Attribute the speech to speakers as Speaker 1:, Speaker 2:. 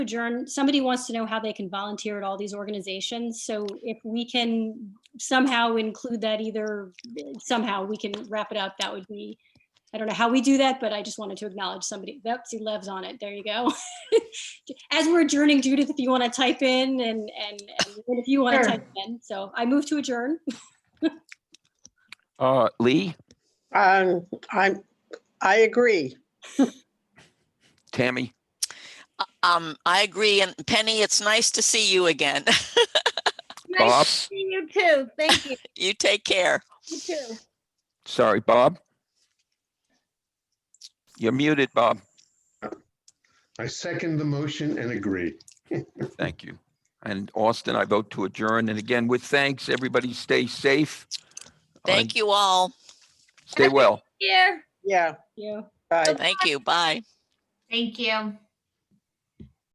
Speaker 1: adjourn, somebody wants to know how they can volunteer at all these organizations. So if we can somehow include that either, somehow we can wrap it up, that would be, I don't know how we do that, but I just wanted to acknowledge somebody. Yep, see Lev's on it. There you go. As we're adjourning, Judith, if you want to type in and, and and if you want
Speaker 2: Sure.
Speaker 1: to type in. So I move to adjourn.
Speaker 3: Uh, Lee,
Speaker 2: Um, I'm, I agree.
Speaker 3: Tammy,
Speaker 4: Um, I agree. And Penny, it's nice to see you again.
Speaker 3: Bob,
Speaker 5: See you too. Thank you.
Speaker 4: You take care.
Speaker 5: You too.
Speaker 3: sorry, Bob. You're muted, Bob.
Speaker 6: I second the motion and agree.
Speaker 3: Thank you. And Austin, I vote to adjourn. And again, with thanks, everybody stay safe. Uh,
Speaker 4: Thank you all.
Speaker 3: Stay well.
Speaker 5: Here.
Speaker 2: Yeah,
Speaker 1: Yeah.
Speaker 2: bye.
Speaker 4: Thank you. Bye.
Speaker 7: Thank you.